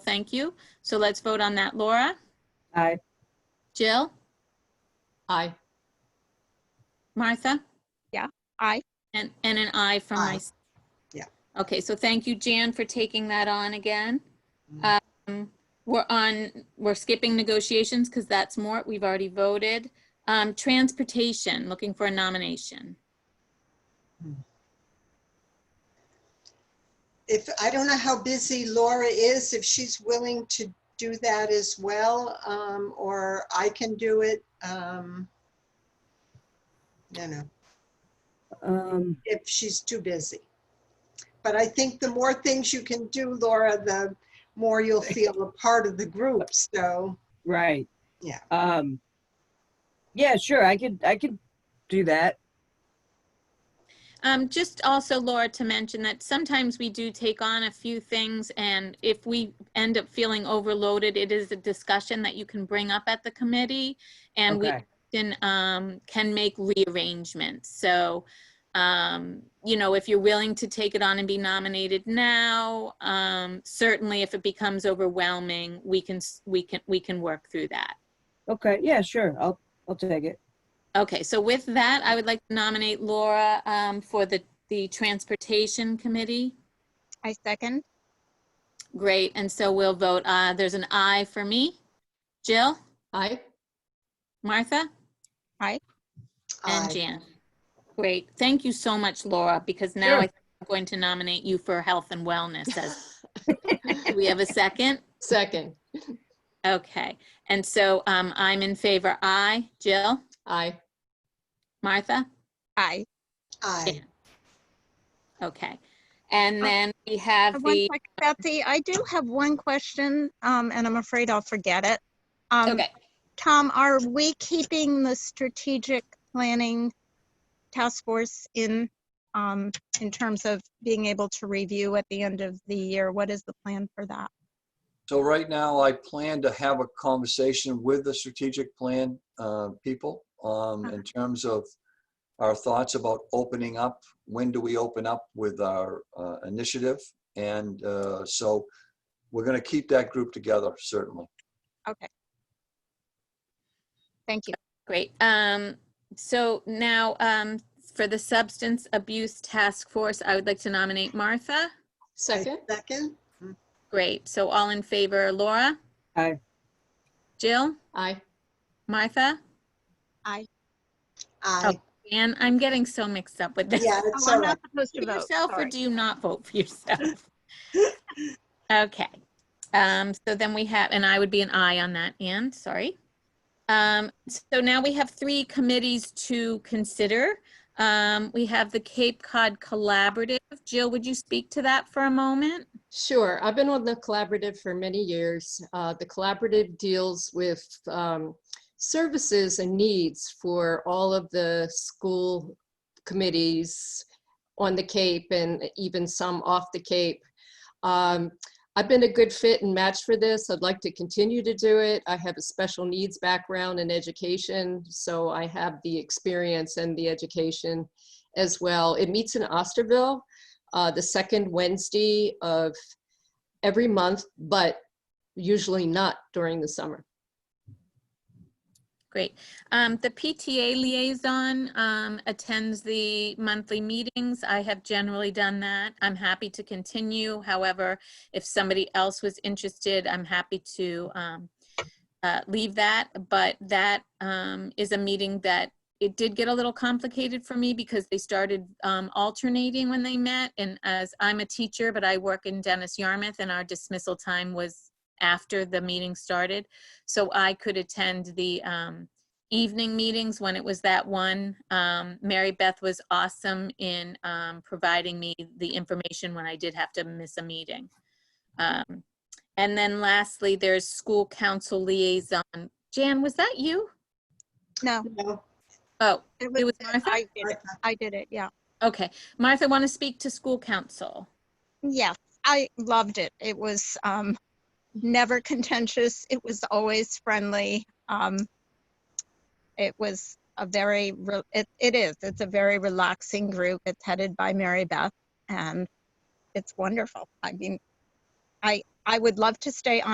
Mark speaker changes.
Speaker 1: thank you. So let's vote on that. Laura?
Speaker 2: Aye.
Speaker 1: Jill?
Speaker 3: Aye.
Speaker 1: Martha?
Speaker 4: Yeah, aye.
Speaker 1: And, and an aye from
Speaker 3: Aye.
Speaker 1: my.
Speaker 2: Yeah.
Speaker 1: Okay, so thank you, Jan, for taking that on again.
Speaker 2: Mhm.
Speaker 1: Um, We're on, we're skipping negotiations because that's more, we've already voted. Um, Transportation, looking for a nomination.
Speaker 2: If, I don't know how busy Laura is, if she's willing to do that as well, um, or I can do it. um, No, no,
Speaker 5: Um,
Speaker 2: if she's too busy. But I think the more things you can do, Laura, the more you'll feel a part of the group, so.
Speaker 5: right.
Speaker 2: Yeah.
Speaker 5: Um, yeah, sure. I could, I could do that.
Speaker 1: Um, just also Laura to mention that sometimes we do take on a few things and if we end up feeling overloaded, it is a discussion that you can bring up at the committee. And we
Speaker 5: Okay.
Speaker 1: often, um, can make rearrangements. So, um, you know, if you're willing to take it on and be nominated now, um, certainly if it becomes overwhelming, we can, s- we can, we can work through that.
Speaker 5: Okay. Yeah, sure. I'll, I'll take it.
Speaker 1: Okay, so with that, I would like to nominate Laura um, for the, the Transportation Committee.
Speaker 4: I second.
Speaker 1: Great, and so we'll vote, uh, there's an aye for me. Jill,
Speaker 3: Aye.
Speaker 1: Martha, and
Speaker 2: aye.
Speaker 1: Jan. Great, thank you so much, Laura, because now
Speaker 5: Sure.
Speaker 1: I think I'm going to nominate you for Health and Wellness. as- Do we have a second?
Speaker 3: Second.
Speaker 1: Okay, and so um, I'm in favor, aye. Jill,
Speaker 3: Aye.
Speaker 1: Martha?
Speaker 4: Aye.
Speaker 2: Aye.
Speaker 1: Okay, and
Speaker 4: Uh,
Speaker 1: then we have
Speaker 4: One
Speaker 1: the,
Speaker 4: sec, Betsy, I do have one question, um, and I'm afraid I'll forget it. Um,
Speaker 1: okay,
Speaker 4: Tom, are we keeping the strategic planning task force in, um, in terms of being able to review at the end of the year? What is the plan for that?
Speaker 6: So right now, I plan to have a conversation with the strategic plan uh, people um, in terms of our thoughts about opening up. When do we open up with our uh, initiative? And uh, so we're going to keep that group together, certainly.
Speaker 4: Thank you.
Speaker 1: Great. Um, so now, um, for the Substance Abuse Task Force, I would like to nominate Martha.
Speaker 3: Second.
Speaker 2: Second?
Speaker 1: Great. So all in favor, Laura?
Speaker 5: Aye.
Speaker 1: Jill?
Speaker 3: Aye.
Speaker 1: Martha?
Speaker 2: Aye.
Speaker 1: And I'm getting so mixed up with this.
Speaker 2: Yeah, it's
Speaker 4: Oh,
Speaker 2: all
Speaker 4: I'm
Speaker 2: right.
Speaker 4: not supposed
Speaker 1: For
Speaker 4: to vote.
Speaker 1: yourself or
Speaker 4: sorry.
Speaker 1: do you not vote for yourself? Okay. Um, so then we have, and I would be an aye on that, Ann, sorry. Um, so now we have three committees to consider. Um, we have the Cape Cod Collaborative. Jill, would you speak to that for a moment?
Speaker 3: Sure. I've been on the collaborative for many years. Uh, The collaborative deals with um, services and needs for all of the school committees on the Cape and even some off the Cape. Um, I've been a good fit and match for this. I'd like to continue to do it. I have a special needs background in education, so I have the experience and the education as well. It meets in Osterville uh, the second Wednesday of every month, but usually not during the summer.
Speaker 1: Great. Um, the PTA liaison, um, attends the monthly meetings. I have generally done that. I'm happy to continue. However, if somebody else was interested, I'm happy to, um, uh, leave that. But that, um, is a meeting that it did get a little complicated for me because they started, um, alternating when they met. And as I'm a teacher, but I work in Dennis Yarmouth and our dismissal time was after the meeting started so I could attend the um, evening meetings when it was that one. Um, Mary Beth was awesome in um, providing me the information when I did have to miss a meeting. Um, and then lastly, there's school council liaison. Jan, was that you?
Speaker 4: No.
Speaker 2: No.
Speaker 1: Oh, It was Martha?
Speaker 4: I did it. I did it, yeah.
Speaker 1: okay. Martha, want to speak to school council?
Speaker 4: Yes, I loved it. It was um, never contentious. It was always friendly. Um, it was a very, re- it, it is, it's a very relaxing group. It's headed by Mary Beth and it's wonderful. I mean, I, I would love to stay on.